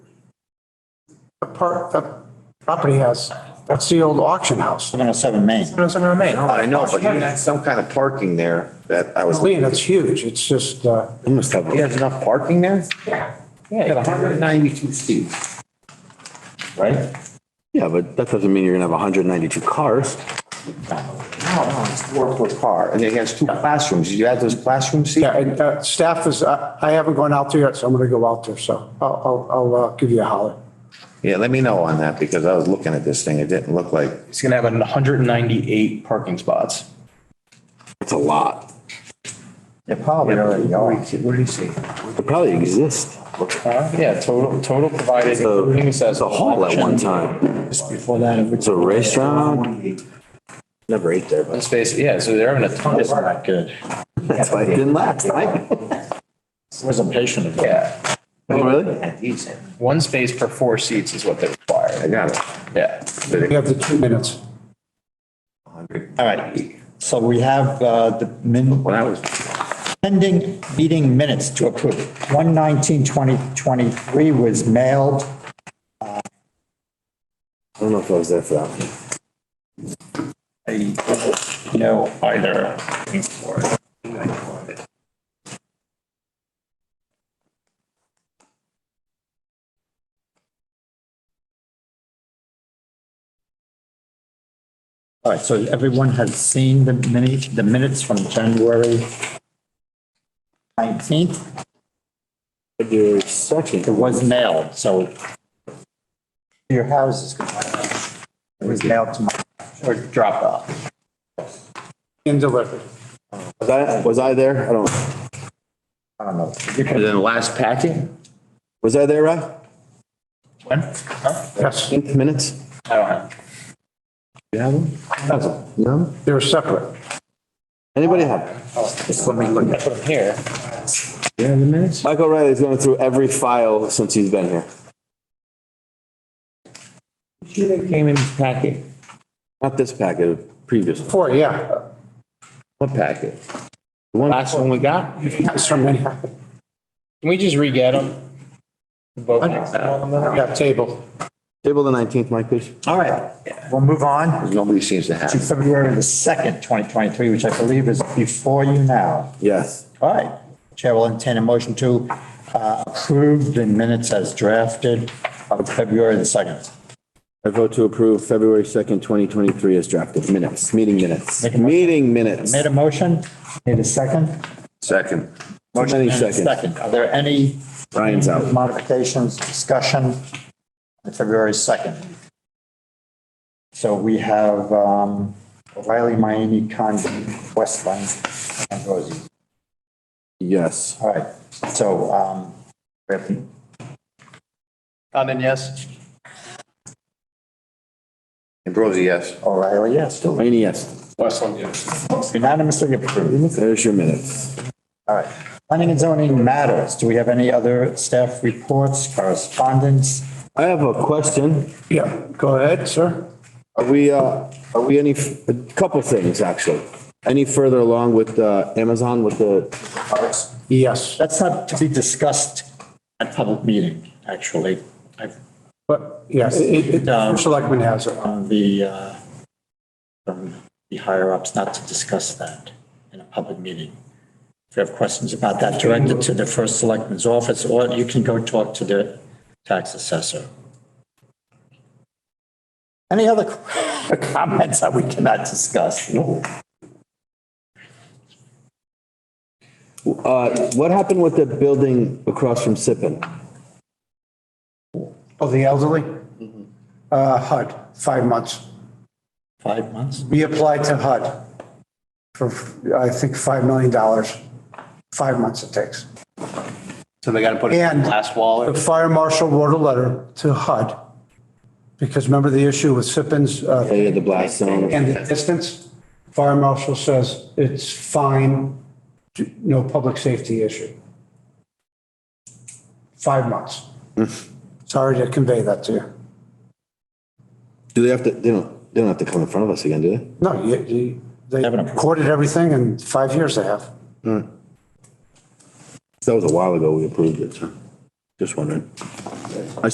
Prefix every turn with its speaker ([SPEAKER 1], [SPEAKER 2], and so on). [SPEAKER 1] The part, the property has, that's the old auction house.
[SPEAKER 2] 707 Main.
[SPEAKER 1] That's in our main.
[SPEAKER 3] I know, but you had some kind of parking there that I was.
[SPEAKER 1] Lee, that's huge. It's just, uh,
[SPEAKER 3] You must have. There's enough parking there?
[SPEAKER 4] Yeah,
[SPEAKER 3] ninety-two feet. Right?
[SPEAKER 4] yeah, but that doesn't mean you're gonna have hundred and ninety-two cars.
[SPEAKER 3] No, no, it's four per car, and it has two classrooms, Did you add those classroom seats?
[SPEAKER 1] yeah, and uh, staff is, I I haven't gone out there yet, so I'm going to go out there. So I'll, I'll, I'll uh, give you a holler.
[SPEAKER 3] Yeah, let me know on that, because I was looking at this thing, it didn't look like,
[SPEAKER 5] It's gonna have hundred and ninety-eight parking spots.
[SPEAKER 4] That's a lot.
[SPEAKER 2] They probably already are.
[SPEAKER 4] They probably exist.
[SPEAKER 5] Yeah, total, total provided, including
[SPEAKER 4] It's
[SPEAKER 5] accessory.
[SPEAKER 4] a hall at one time.
[SPEAKER 2] Just before that. it was-
[SPEAKER 4] It's a restaurant. Never ate there, but
[SPEAKER 5] Space, yeah, so they're having a ton
[SPEAKER 2] It's
[SPEAKER 5] of,
[SPEAKER 2] not good.
[SPEAKER 4] that's why it didn't last. Oh,
[SPEAKER 2] Was a patient of it.
[SPEAKER 5] yeah,
[SPEAKER 4] really?
[SPEAKER 5] one space per four seats is what they
[SPEAKER 3] I
[SPEAKER 5] require,
[SPEAKER 3] got it.
[SPEAKER 5] yeah.
[SPEAKER 1] We have the two minutes.
[SPEAKER 2] All right. So we have uh, the min,
[SPEAKER 3] When I was,
[SPEAKER 2] pending meeting minutes to approve. 1192023 was mailed.
[SPEAKER 4] I don't know if I was there for that one.
[SPEAKER 2] No, either. All right, so everyone has seen the minutes, the minutes from January 19th.
[SPEAKER 4] February second.
[SPEAKER 2] It was mailed, so your house is. It was mailed to my, or dropped off.
[SPEAKER 1] In delivery.
[SPEAKER 4] Was I, was I there? I don't,
[SPEAKER 2] I don't know. You
[SPEAKER 3] and
[SPEAKER 2] can-
[SPEAKER 3] then last packet?
[SPEAKER 4] was I there, Rob?
[SPEAKER 5] When? Huh?
[SPEAKER 1] Yes,
[SPEAKER 4] Eight minutes?
[SPEAKER 5] I don't know.
[SPEAKER 4] You have them?
[SPEAKER 1] that's-
[SPEAKER 4] No?
[SPEAKER 1] they're separate.
[SPEAKER 4] Anybody have? them?
[SPEAKER 2] Just let me look at it.
[SPEAKER 5] Here,
[SPEAKER 4] Michael Riley's going through every file since he's been here.
[SPEAKER 2] Came in packet.
[SPEAKER 4] Not this packet, previous. one.
[SPEAKER 1] Four, yeah.
[SPEAKER 3] What packet?
[SPEAKER 4] Last one we got?
[SPEAKER 1] That's from many,
[SPEAKER 5] can we just re-get them? Vote next time.
[SPEAKER 1] yeah, table.
[SPEAKER 4] Table the nineteenth, Mike, please.
[SPEAKER 2] All right, we'll move on
[SPEAKER 3] Nobody seems to
[SPEAKER 2] to
[SPEAKER 3] have.
[SPEAKER 2] February the 2nd, 2023, which I believe is before you now.
[SPEAKER 4] Yes.
[SPEAKER 2] All right, Chair will entertain a motion to uh, approve the minutes as drafted of February the 2nd.
[SPEAKER 4] I vote to approve February second, twenty twenty-three as drafted minutes, meeting minutes, meeting minutes.
[SPEAKER 2] Made a motion, need a second?
[SPEAKER 3] Second.
[SPEAKER 4] Motion
[SPEAKER 2] And
[SPEAKER 4] any
[SPEAKER 2] a
[SPEAKER 4] second.
[SPEAKER 2] Second, are there any
[SPEAKER 4] Ryan's out.
[SPEAKER 2] modifications, discussion on February 2nd? So we have um, O'Reilly, Miami, Condi, Westland, Ambrosi.
[SPEAKER 4] Yes.
[SPEAKER 2] All right, so, um, we have-
[SPEAKER 5] Condon, yes?
[SPEAKER 3] Ambrosi, yes.
[SPEAKER 2] O'Reilly, yes,
[SPEAKER 4] Rainey, yes.
[SPEAKER 5] Westland, yes.
[SPEAKER 2] unanimously approved.
[SPEAKER 4] There's your minutes.
[SPEAKER 2] All right, planning and zoning matters. Do we have any other staff reports, correspondence?
[SPEAKER 4] I have a question.
[SPEAKER 1] Yeah, go ahead, sir.
[SPEAKER 4] Are we, uh, are we any, a couple things, actually. Any further along with, uh, Amazon with the,
[SPEAKER 1] Yes,
[SPEAKER 2] That's not to be discussed at public meeting, actually. I've,
[SPEAKER 1] but yes, it, it, selectman has it.
[SPEAKER 2] on the, uh, from the higher ups, not to discuss that in a public meeting. If you have questions about that, direct it to the first selectman's office, or you can go talk to the tax assessor. Any other comments that we cannot discuss? No.
[SPEAKER 4] uh, what happened with the building across from Sippin?
[SPEAKER 1] Oh, the elderly? Uh, HUD, five months.
[SPEAKER 2] Five months?
[SPEAKER 1] We applied to HUD for, I think, $5 million. Five months it takes.
[SPEAKER 5] So they gotta put
[SPEAKER 1] And-
[SPEAKER 5] glass wall
[SPEAKER 1] The fire marshal wrote a letter to HUD because remember the issue with Sippin's uh,
[SPEAKER 4] They had the blast zone.
[SPEAKER 1] and the distance? Fire marshal says it's fine, no public safety issue. Five months. Sorry to convey that to you.
[SPEAKER 4] Do they have to, they don't, they don't have to come in front of us again, do they?
[SPEAKER 1] No, you- you, they
[SPEAKER 2] Haven't approved.
[SPEAKER 1] recorded everything in five years they have.
[SPEAKER 4] That was a while ago we approved it, so just wondering.